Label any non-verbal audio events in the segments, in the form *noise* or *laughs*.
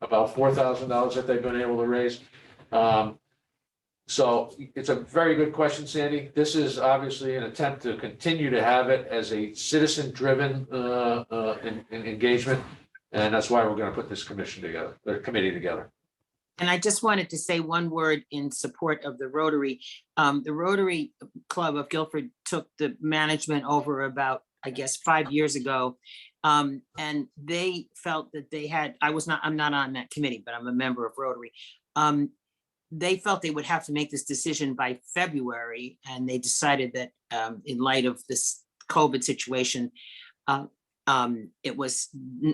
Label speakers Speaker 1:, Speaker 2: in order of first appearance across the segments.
Speaker 1: about four thousand dollars that they've been able to raise. Um, So it's a very good question, Sandy. This is obviously an attempt to continue to have it as a citizen-driven uh, uh, en- en- engagement. And that's why we're going to put this commission together, the committee together.
Speaker 2: And I just wanted to say one word in support of the Rotary. Um, the Rotary Club of Guilford took the management over about, I guess, five years ago. Um, and they felt that they had, I was not, I'm not on that committee, but I'm a member of Rotary. Um, they felt they would have to make this decision by February, and they decided that, um, in light of this COVID situation, uh, um, it was,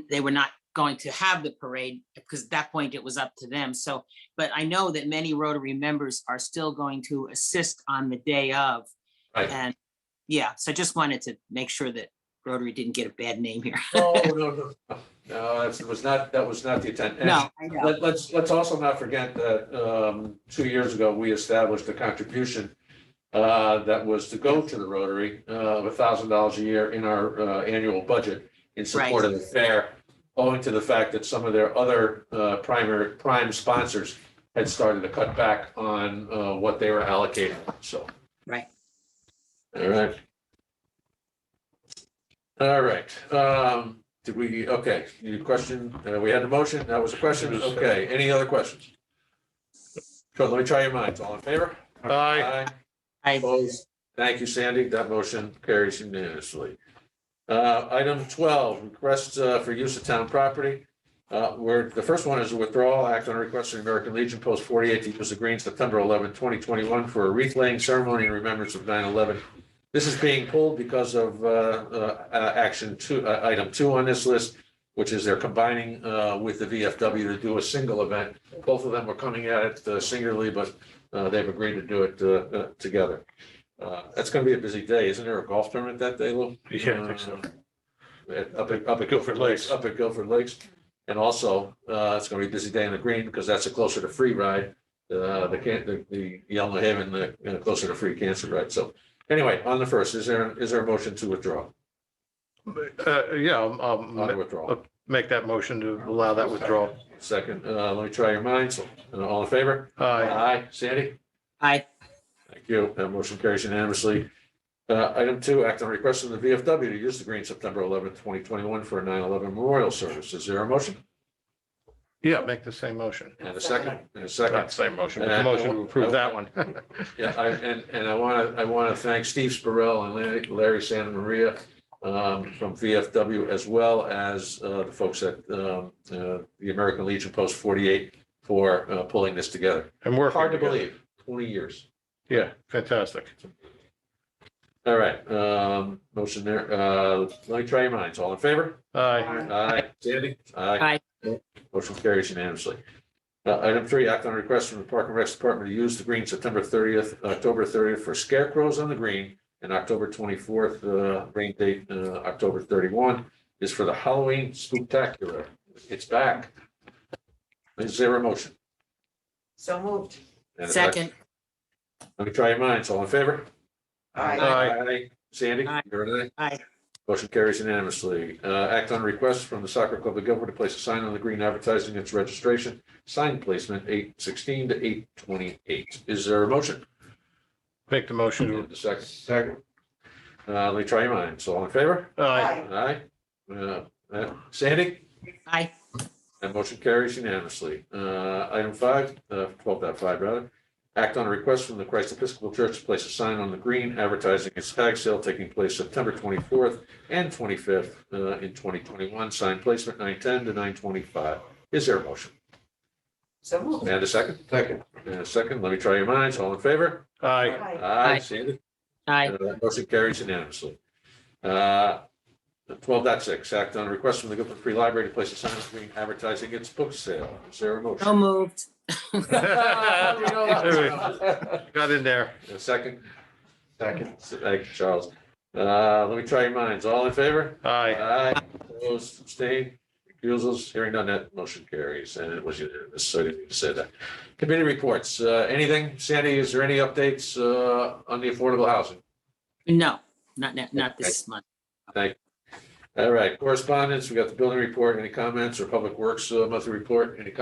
Speaker 2: they were not going to have the parade, because at that point it was up to them. So, but I know that many Rotary members are still going to assist on the day of.
Speaker 1: Right.
Speaker 2: And, yeah, so I just wanted to make sure that Rotary didn't get a bad name here.
Speaker 1: No, Oh, no, no. *laughs* No, that was not, that was not the intent. And
Speaker 2: *laughs* No, I know,
Speaker 1: Let, let's, let's also not forget that, um, two years ago, we established a contribution uh, that was to go to the Rotary, uh, of a thousand dollars a year in our, uh, annual budget in support of the fair, owing to the fact that some of their other, uh, primary, prime sponsors had started to cut back on, uh, what they were allocating, so.
Speaker 2: Right.
Speaker 1: All right. All right, um, did we, okay, you question, uh, we had a motion, that was a question, okay, any other questions? So let me try your minds, all in favor?
Speaker 3: Aye.
Speaker 1: Aye.
Speaker 2: I,
Speaker 1: Opposed? Thank you, Sandy, that motion carries unanimously. Uh, item twelve, requests uh, for use of town property. Uh, where, the first one is a withdrawal act on a request of the American Legion Post forty-eight to use the green September 11, twenty twenty-one for a wreath laying ceremony in remembrance of 9/11. This is being pulled because of, uh, uh, uh, action two, uh, item two on this list, which is they're combining, uh, with the VFW to do a single event. Both of them are coming at it uh, singularly, but, uh, they've agreed to do it, uh, uh, together. Uh, that's gonna be a busy day. Isn't there a golf tournament that day, Lou?
Speaker 3: Yeah, I think so.
Speaker 1: Uh, at- Up at, up at Guilford Lakes, up at Guilford Lakes. And also, uh, it's gonna be a busy day in the green because that's a closer to free ride. Uh, the can, the, the Yellow Haven, the, you know, closer to free cancer ride. So anyway, on the first, is there, is there a motion to withdraw?
Speaker 3: Uh, yeah, I'll, I'll
Speaker 1: On the
Speaker 3: ma-
Speaker 1: withdrawal.
Speaker 3: make that motion to allow that withdrawal.
Speaker 1: Second, uh, let me try your minds. Uh, All in favor?
Speaker 3: Aye.
Speaker 1: Aye. Sandy?
Speaker 2: I,
Speaker 1: Thank you. That motion carries unanimously. Uh, item two, act on request from the VFW to use the green September eleventh, twenty twenty-one for a 9/11 memorial service. Is there a motion?
Speaker 3: Yeah, make the same motion.
Speaker 1: And a second, and a
Speaker 3: Not
Speaker 1: second.
Speaker 3: the same motion, but the motion to approve that one. *laughs*
Speaker 1: Yeah, I, and, and I want to, I want to thank Steve Spurrell and Larry- Larry Santa Maria um, from VFW as well as, uh, the folks at, um, uh, the American Legion Post forty-eight for, uh, pulling this together.
Speaker 3: And we're.
Speaker 1: Hard to believe, twenty years.
Speaker 3: Yeah, fantastic.
Speaker 1: All right, um, motion there, uh, let me try your minds, all in favor?
Speaker 3: Aye.
Speaker 1: Aye. Sandy? Aye. Motion carries unanimously. Uh, item three, act on a request from the Park and Rec Department to use the green September thirtieth, October thirtieth for scarecrows on the green. And October twenty-fourth, uh, rain date, uh, October thirty-one is for the Halloween spectacular. It's back. Is there a motion?
Speaker 4: So moved.
Speaker 1: And a
Speaker 2: second,
Speaker 1: Let me try your minds, all in favor?
Speaker 4: Aye.
Speaker 3: Aye.
Speaker 1: Sandy?
Speaker 2: Aye.
Speaker 1: You're an aye?
Speaker 2: I,
Speaker 1: Motion carries unanimously. Uh, act on request from the Soccer Club of Guilford to place a sign on the green advertising its registration, sign placement eight sixteen to eight twenty-eight. Is there a motion?
Speaker 3: Make the motion
Speaker 1: And a second.
Speaker 3: Second.
Speaker 1: Uh, let me try your minds. All in favor?
Speaker 3: to, aye.
Speaker 1: Aye. Uh, uh, Sandy?
Speaker 2: I,
Speaker 1: That motion carries unanimously. Uh, item five, uh, twelve dot five rather. Act on a request from the Christ Episcopal Church to place a sign on the green advertising its tag sale taking place September twenty-fourth and twenty-fifth, uh, in twenty twenty-one, sign placement nine ten to nine twenty-five. Is there a motion?
Speaker 4: So moved.
Speaker 1: And a second?
Speaker 3: Second.
Speaker 1: And a second. Let me try your minds. All in favor?
Speaker 3: Aye.
Speaker 4: Aye.
Speaker 1: Aye. Sandy?
Speaker 2: I,
Speaker 1: Uh, Motion carries unanimously. Uh, 12.6, act on a request from the Guilford Free Library to place a sign on the green advertising its book sale. Is there a motion?
Speaker 2: so moved.
Speaker 1: A
Speaker 3: Got in there.
Speaker 1: *laughs* second,
Speaker 3: Second.
Speaker 1: thank you, Charles. Uh, let me try your minds. All in favor?
Speaker 3: Aye.
Speaker 1: Aye. Opposed, abstained, recusals, hearing none, that motion carries, and it was unanimous, so I didn't need to say that. Committee reports, uh, anything? Sandy, is there any updates, uh, on the affordable housing?
Speaker 2: No, not, not, not this month.
Speaker 1: All right, correspondence, we got the building report, any comments, or Public Works, uh, monthly report, any